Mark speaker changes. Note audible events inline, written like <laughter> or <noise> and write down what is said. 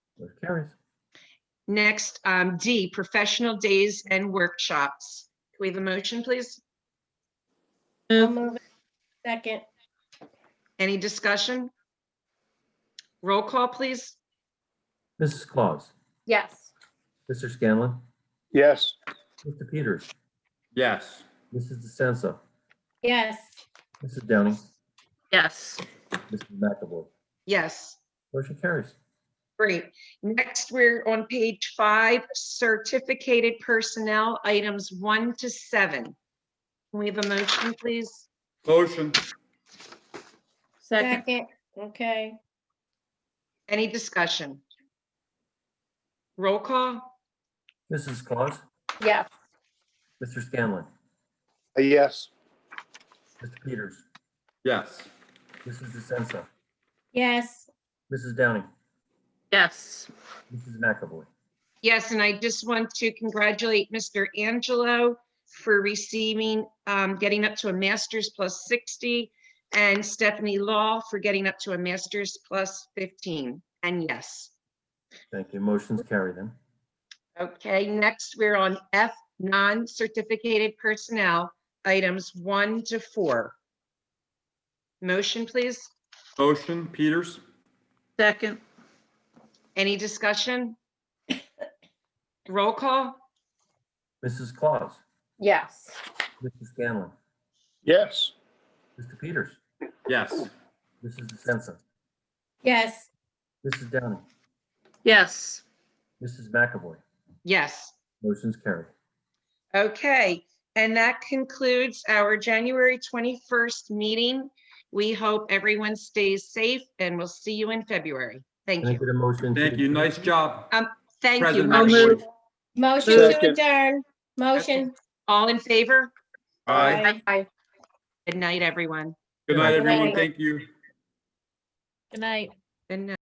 Speaker 1: Motion carries.
Speaker 2: Next, um, D, professional days and workshops. Can we have a motion, please?
Speaker 3: I'll
Speaker 4: Move,
Speaker 3: move it. Second,
Speaker 2: Any discussion? Roll call, please.
Speaker 1: Mrs. Claus,
Speaker 3: yes.
Speaker 1: Mr. Scanlon,
Speaker 5: yes,
Speaker 1: Mr. Peters,
Speaker 6: yes,
Speaker 1: Mrs. DeSenza,
Speaker 3: Yes,
Speaker 1: Mrs. Downing,
Speaker 4: yes.
Speaker 1: Mrs. McAvoy.
Speaker 2: Yes,
Speaker 1: Motion carries.
Speaker 2: great. Next, we're on page five, certificated personnel, items one to seven. Can we have a motion, please?
Speaker 6: motion,
Speaker 4: Second,
Speaker 3: second, okay.
Speaker 2: Any discussion? Roll call?
Speaker 1: Mrs. Claus,
Speaker 3: Yes,
Speaker 1: Mr. Scanlon,
Speaker 5: a yes,
Speaker 1: Mr. Peters,
Speaker 6: yes,
Speaker 1: Mrs. DeSenza,
Speaker 3: yes,
Speaker 1: Mrs. Downing,
Speaker 4: yes.
Speaker 1: Mrs. McAvoy.
Speaker 2: Yes, and I just want to congratulate Mr. Angelo for receiving, um, getting up to a master's plus 60, and Stephanie Law for getting up to a master's plus 15. And yes.
Speaker 1: Thank you. Motion's carried then.
Speaker 2: Okay, next, we're on F, non-certificated personnel, items one to four. Motion, please.
Speaker 6: motion, Peters,
Speaker 4: Second,
Speaker 2: Any discussion? <coughs> Roll call?
Speaker 1: Mrs. Claus,
Speaker 3: yes,
Speaker 1: Mr. Scanlon,
Speaker 5: yes,
Speaker 1: Mr. Peters,
Speaker 6: yes,
Speaker 1: Mrs. DeSenza,
Speaker 3: yes,
Speaker 1: Mrs. Downing,
Speaker 4: yes.
Speaker 1: Mrs. McAvoy.
Speaker 2: Yes.
Speaker 1: Motion's carried.
Speaker 2: Okay, and that concludes our January 21st meeting. We hope everyone stays safe and we'll see you in February. Thank
Speaker 1: Can I
Speaker 2: you.
Speaker 1: get a motion? to
Speaker 6: thank you,
Speaker 1: adjourn?
Speaker 6: nice job.
Speaker 2: Thank you.
Speaker 6: President
Speaker 4: I'll
Speaker 2: Marcia.
Speaker 6: Marshall.
Speaker 4: move.
Speaker 3: motion to
Speaker 5: Second.
Speaker 3: adjourn, motion.
Speaker 2: All in favor?
Speaker 6: Aye,
Speaker 3: Aye.
Speaker 2: Good night, everyone.
Speaker 6: good night,
Speaker 3: Good night.
Speaker 6: everyone, thank you.
Speaker 4: Good night.
Speaker 2: Good night.